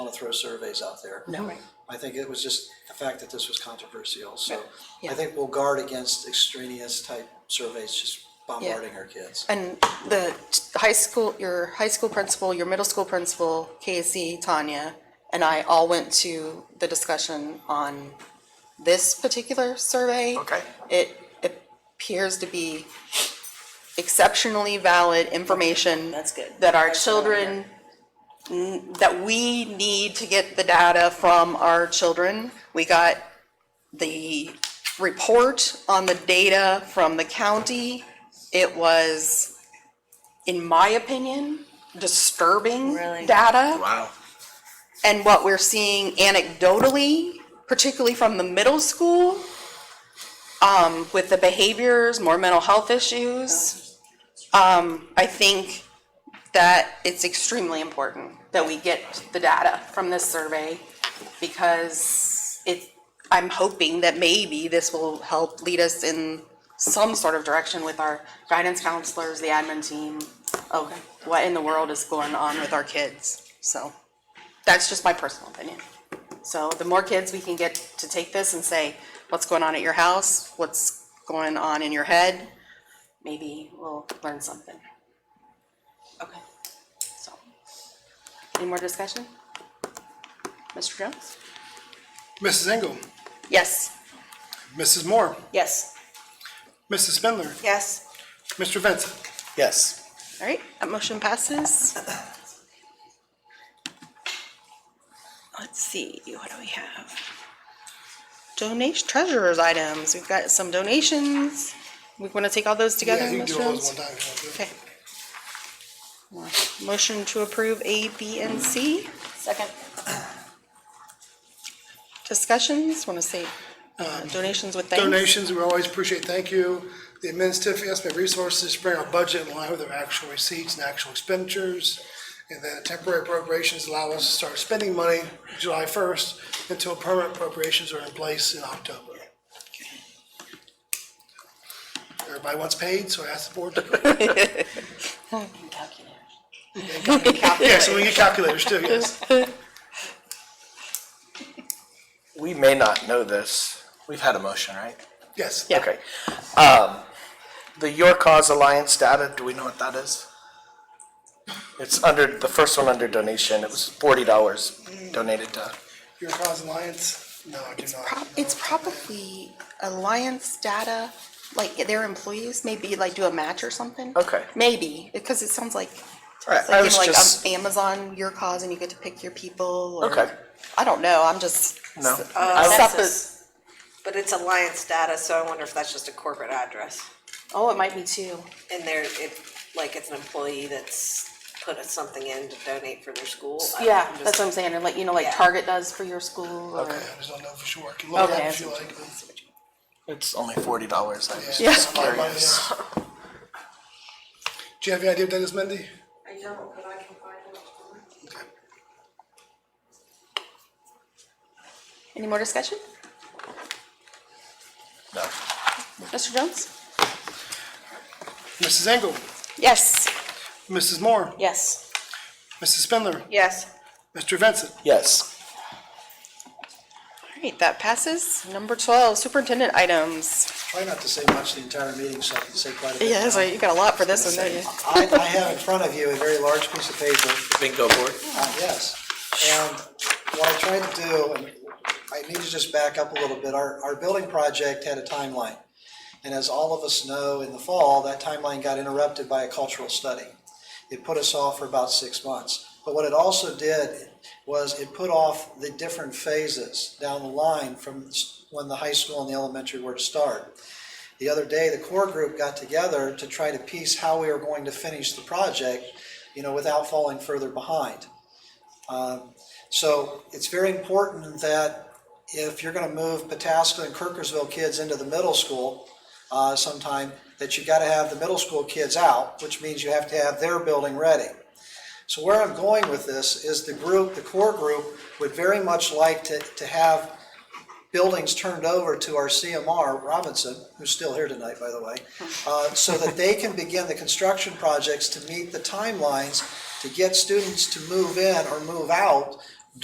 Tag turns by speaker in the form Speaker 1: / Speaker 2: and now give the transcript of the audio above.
Speaker 1: to throw surveys out there.
Speaker 2: No. Right.
Speaker 1: I think it was just the fact that this was controversial, so
Speaker 2: Yeah.
Speaker 1: I think we'll guard against extraneous type surveys just bombarding our kids.
Speaker 2: And the t- high school, your high school principal, your middle school principal, Casey, Tanya, and I all went to the discussion on this particular survey.
Speaker 3: Okay.
Speaker 2: It appears to be exceptionally valid information.
Speaker 4: That's good.
Speaker 2: That our children, n- that we need to get the data from our children. We got the report on the data from the county. It was, in my opinion, disturbing
Speaker 4: Really?
Speaker 2: data.
Speaker 3: Wow.
Speaker 2: And what we're seeing anecdotally, particularly from the middle school, um, with the behaviors, more mental health issues. Um, I think that it's extremely important that we get the data from this survey because it, I'm hoping that maybe this will help lead us in some sort of direction with our guidance counselors, the admin team, of what in the world is going on with our kids, so. That's just my personal opinion. So the more kids we can get to take this and say, what's going on at your house? What's going on in your head? Maybe we'll learn something. Okay, so. Any more discussion? Mr. Jones?
Speaker 5: Mrs. Engel,
Speaker 2: Yes.
Speaker 5: Mrs. Moore,
Speaker 4: Yes.
Speaker 5: Mrs. Spindler,
Speaker 4: Yes.
Speaker 5: Mr. Vincent.
Speaker 3: Yes.
Speaker 2: All right, that motion passes. Let's see, what do we have? Donation, treasurer's items, we've got some donations. We want to take all those together,
Speaker 5: Yeah, you can do
Speaker 2: Mr.
Speaker 5: all those
Speaker 2: Jones?
Speaker 5: one time if you want to.
Speaker 2: Okay. Motion to approve A, B, and C.
Speaker 4: Second.
Speaker 2: Discussions, want to say
Speaker 5: Um,
Speaker 2: uh, donations with thanks?
Speaker 5: Donations, we always appreciate, thank you. The administrative estimate resources to bring our budget in line with our actual receipts and actual expenditures. And then temporary appropriations allow us to start spending money July first until permanent appropriations are in place in October. Everybody wants paid, so I ask the board to.
Speaker 4: Calculator.
Speaker 5: Yeah, so we get calculators too, yes.
Speaker 3: We may not know this. We've had a motion, right?
Speaker 5: Yes.
Speaker 2: Yeah.
Speaker 3: Okay. Um, the Your Cause Alliance data, do we know what that is? It's under, the first one under donation, it was forty dollars donated to,
Speaker 5: Your cause alliance? No, I do
Speaker 2: Prob-
Speaker 5: not.
Speaker 2: It's probably Alliance data, like their employees maybe like do a match or something.
Speaker 3: Okay.
Speaker 2: Maybe, because it sounds like,
Speaker 3: Alright,
Speaker 2: it's
Speaker 3: I
Speaker 2: like, you
Speaker 3: was
Speaker 2: know, like um,
Speaker 3: just-
Speaker 2: Amazon, your cause, and you get to pick your people or.
Speaker 3: Okay.
Speaker 2: I don't know, I'm just.
Speaker 3: no?
Speaker 2: Suppo-
Speaker 6: But it's Alliance data, so I wonder if that's just a corporate address.
Speaker 2: Oh, it might be too.
Speaker 6: And there, it, like, it's an employee that's put something in to donate for their school. I-
Speaker 2: Yeah,
Speaker 6: I'm just-
Speaker 2: that's what I'm saying, and like, you know, like
Speaker 6: Yeah.
Speaker 2: Target does for your school or.
Speaker 5: I just don't know for sure. I can look it up
Speaker 2: Okay.
Speaker 5: if you like.
Speaker 3: It's only forty dollars, I was
Speaker 5: Yeah.
Speaker 3: just curious.
Speaker 5: Do you have any idea what that is, Mindy?
Speaker 2: Any more discussion?
Speaker 3: No.
Speaker 2: Mr. Jones?
Speaker 5: Mrs. Engel,
Speaker 2: Yes.
Speaker 5: Mrs. Moore,
Speaker 4: Yes.
Speaker 5: Mrs. Spindler,
Speaker 4: Yes.
Speaker 5: Mr. Vincent.
Speaker 3: Yes.
Speaker 2: All right, that passes. Number twelve, superintendent items.
Speaker 1: Try not to say much the entire meeting, so I can say quite a bit.
Speaker 2: Yeah,
Speaker 1: now.
Speaker 2: so you got a lot for this one, don't you?
Speaker 1: I, I have in front of you a very large piece of paper,
Speaker 3: Bingo board.
Speaker 1: uh, yes. And what I tried to do, and I need to just back up a little bit, our, our building project had a timeline. And as all of us know, in the fall, that timeline got interrupted by a cultural study. It put us off for about six months. But what it also did was it put off the different phases down the line from s- when the high school and the elementary were to start. The other day, the core group got together to try to piece how we were going to finish the project, you know, without falling further behind. Um, So it's very important that if you're gonna move Pataska and Kirkersville kids into the middle school uh, sometime, that you gotta have the middle school kids out, which means you have to have their building ready. So where I'm going with this is the group, the core group, would very much like to, to have buildings turned over to our CMR, Robinson, who's still here tonight, by the way, uh, so that they can begin the construction projects to meet the timelines to get students to move in or move out